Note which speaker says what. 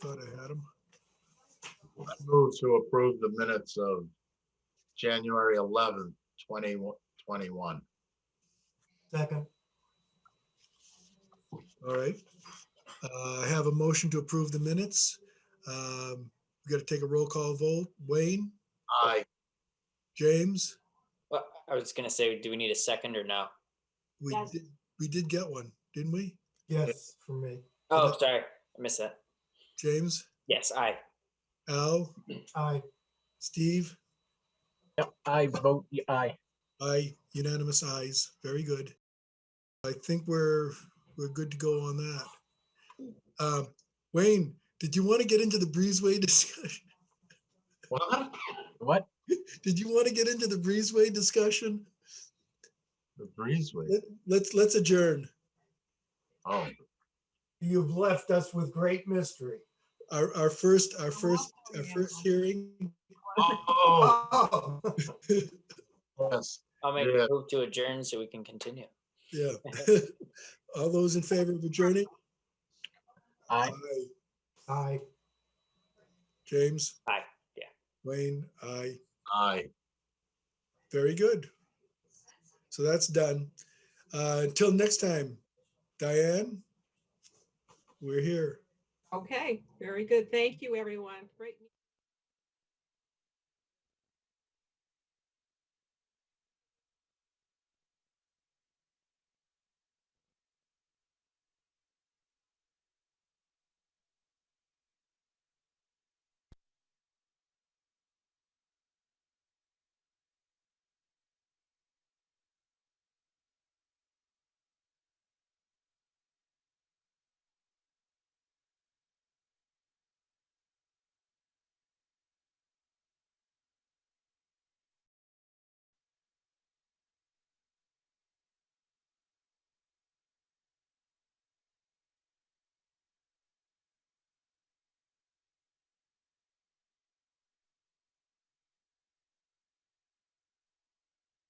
Speaker 1: thought I had them.
Speaker 2: I Move to approve the minutes of January eleventh, twenty twenty-one.
Speaker 3: Second,
Speaker 1: All right. Uh, I have a motion to approve the minutes. Um, We got to take a roll call vote. Wayne,
Speaker 2: Aye,
Speaker 1: James,
Speaker 4: Well, I was gonna say, do we need a second or no?
Speaker 1: we,
Speaker 5: Yes.
Speaker 1: did- we did get one, didn't we?
Speaker 3: yes, for me.
Speaker 4: Oh, sorry, I missed that.
Speaker 1: James,
Speaker 4: Yes, aye.
Speaker 1: Al,
Speaker 3: Aye,
Speaker 1: Steve?
Speaker 6: Yep, I vote y- aye.
Speaker 1: Aye, unanimous ayes. Very good. I think we're, we're good to go on that. Um, Wayne, did you want to get into the breezeway discussion?
Speaker 2: what?
Speaker 6: What?
Speaker 1: Did you want to get into the breezeway discussion?
Speaker 2: The breezeway,
Speaker 1: Let- Let's, let's adjourn.
Speaker 2: oh.
Speaker 3: you've left us with great mystery.
Speaker 1: Our, our first, our first, our first hearing.
Speaker 2: Oh,
Speaker 3: Oh,
Speaker 2: yes,
Speaker 4: I'll make
Speaker 2: Yeah.
Speaker 4: a move to adjourn so we can continue.
Speaker 1: Yeah. All those in favor of adjourning?
Speaker 6: Aye.
Speaker 3: aye.
Speaker 1: James?
Speaker 4: Aye, yeah.
Speaker 1: Wayne, aye.
Speaker 2: aye.
Speaker 1: Very good. So that's done. Uh, Until next time, Diane, we're here.
Speaker 5: Okay, very good. Thank you, everyone. Great.